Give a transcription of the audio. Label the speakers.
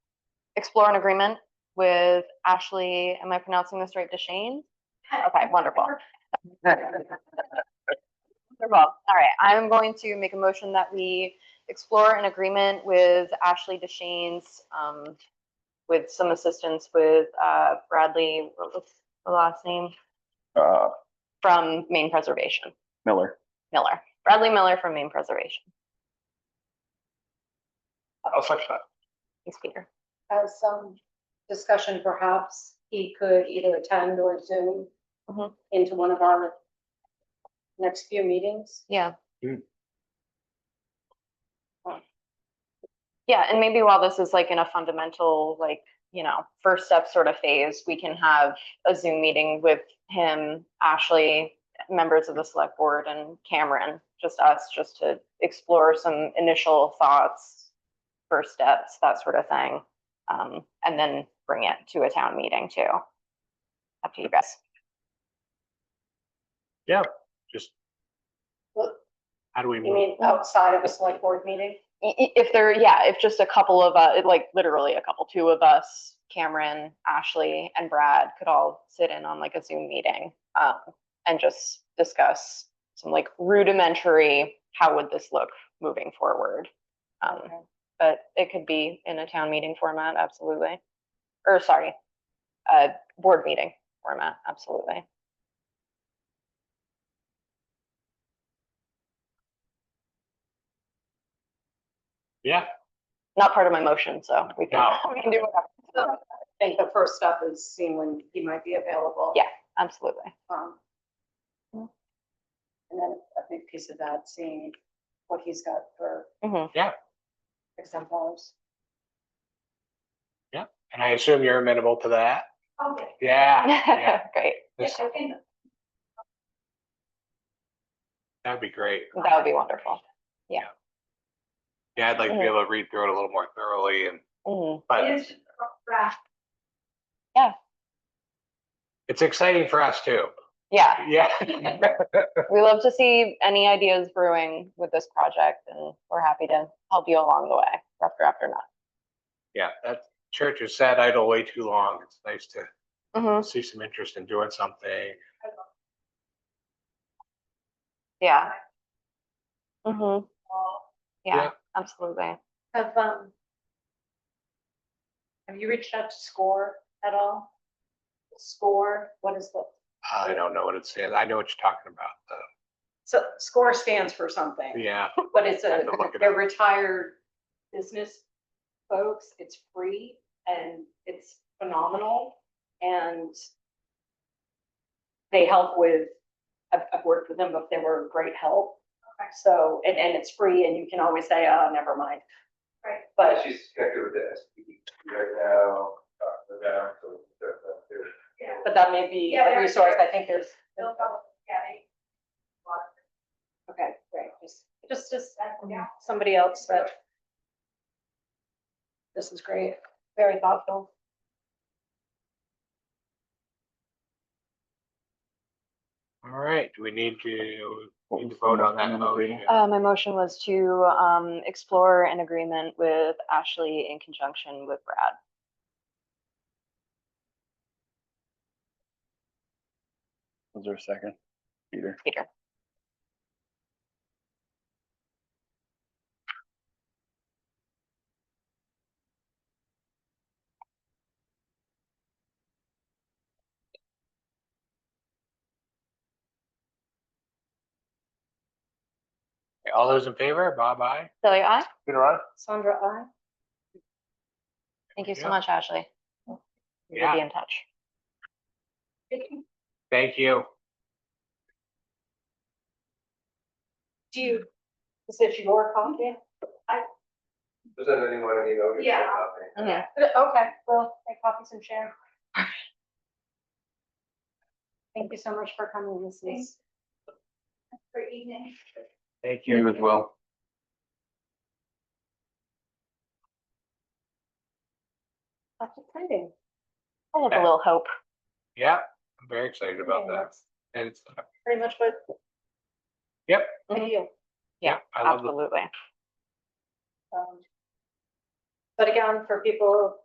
Speaker 1: explore an agreement with Ashley, am I pronouncing this right, Deshane? Okay, wonderful. Wonderful. All right, I'm going to make a motion that we explore an agreement with Ashley Deshane's, um, with some assistance with, uh, Bradley, what was the last name?
Speaker 2: Uh,
Speaker 1: From Maine Preservation,
Speaker 2: Miller.
Speaker 1: Miller, Bradley Miller from Maine Preservation.
Speaker 2: I'll second that.
Speaker 1: Thanks, Peter.
Speaker 3: have some discussion, perhaps he could either attend or Zoom
Speaker 1: Mhm.
Speaker 3: into one of our next few meetings.
Speaker 1: Yeah.
Speaker 2: Mm.
Speaker 1: Yeah, and maybe while this is like in a fundamental, like, you know, first step sort of phase, we can have a Zoom meeting with him, Ashley, members of the select board and Cameron, just us, just to explore some initial thoughts, first steps, that sort of thing. Um, and then bring it to a town meeting too. Up to you guys.
Speaker 2: Just
Speaker 3: Well,
Speaker 2: how do we
Speaker 3: You
Speaker 2: move?
Speaker 3: mean outside of a select board meeting?
Speaker 1: i- i- if there, yeah, if just a couple of, uh, like literally a couple, two of us, Cameron, Ashley, and Brad could all sit in on like a Zoom meeting um, and just discuss some like rudimentary, how would this look moving forward? Um,
Speaker 3: Okay.
Speaker 1: but it could be in a town meeting format, absolutely. Or sorry, uh, board meeting format, absolutely.
Speaker 2: Yeah,
Speaker 1: Not part of my motion, so we can,
Speaker 2: No.
Speaker 1: we can do whatever.
Speaker 3: I think the first step is seeing when he might be available.
Speaker 1: Yeah. Absolutely.
Speaker 3: Um, And then a big piece of that, seeing what he's got for
Speaker 1: Mhm.
Speaker 3: examples.
Speaker 2: and I assume you're amenable to that.
Speaker 3: Okay.
Speaker 2: Yeah, yeah,
Speaker 1: Great.
Speaker 2: Yes. that'd be great.
Speaker 1: That would be wonderful.
Speaker 2: Yeah, I'd like to be able to read through it a little more thoroughly and,
Speaker 1: Mhm.
Speaker 2: but it's exciting for us too.
Speaker 1: Yeah,
Speaker 2: Yeah.
Speaker 1: we love to see any ideas brewing with this project, and we're happy to help you along the way, after after not.
Speaker 2: Yeah, that church has sat idle way too long. It's nice to
Speaker 1: Mm-hmm.
Speaker 2: see some interest in doing something.
Speaker 1: Yeah. Mm-hmm. Yeah,
Speaker 2: Yeah.
Speaker 1: absolutely.
Speaker 3: Have, um, have you reached out to SCORE at all? SCORE, what is the,
Speaker 2: I don't know what it says. I know what you're talking about though.
Speaker 3: so SCORE stands for something,
Speaker 2: Yeah,
Speaker 3: but it's
Speaker 2: I
Speaker 3: a,
Speaker 2: have to look it
Speaker 3: they're
Speaker 2: up.
Speaker 3: retired business folks. It's free and it's phenomenal. And they help with, I've, I've worked with them, but they were great help. So, and, and it's free and you can always say, oh, never mind. Right. But
Speaker 4: She's connected with the SPD right now, Dr. Down, so they're, they're.
Speaker 3: But that may be
Speaker 5: Yeah,
Speaker 3: a
Speaker 5: there-
Speaker 3: resource, I think there's.
Speaker 5: No problem. Yeah, they-
Speaker 3: Okay, great, just, just, just, Mm,
Speaker 5: Yeah.
Speaker 3: somebody else that. This is great, very thoughtful.
Speaker 2: all right. Do we need to, need to vote on that motion?
Speaker 1: Uh, my motion was to um, explore an agreement with Ashley in conjunction with Brad.
Speaker 6: Was there a second? Peter,
Speaker 1: Peter.
Speaker 2: All those in favor? Bye bye.
Speaker 1: Celia, aye.
Speaker 4: Peter, I?
Speaker 3: Sandra, I,
Speaker 1: Thank you so
Speaker 2: Yeah.
Speaker 1: much, Ashley. We'll
Speaker 2: Yeah.
Speaker 1: be in touch.
Speaker 2: Thank you.
Speaker 3: do you, is this your copy?
Speaker 4: Does that anyone any of you?
Speaker 5: Yeah.
Speaker 1: Mhm.
Speaker 3: Okay, well, make copies and share. Thank you so much for coming, this is,
Speaker 5: For evening.
Speaker 2: Thank
Speaker 6: you as well.
Speaker 3: that's exciting.
Speaker 1: I have a little hope.
Speaker 2: Yeah, I'm very excited about
Speaker 3: Okay,
Speaker 2: that.
Speaker 3: that's
Speaker 2: And it's,
Speaker 3: Pretty much what.
Speaker 2: Yep.
Speaker 3: I do.
Speaker 2: yeah, I love the
Speaker 1: Absolutely.
Speaker 3: Um, But again, for people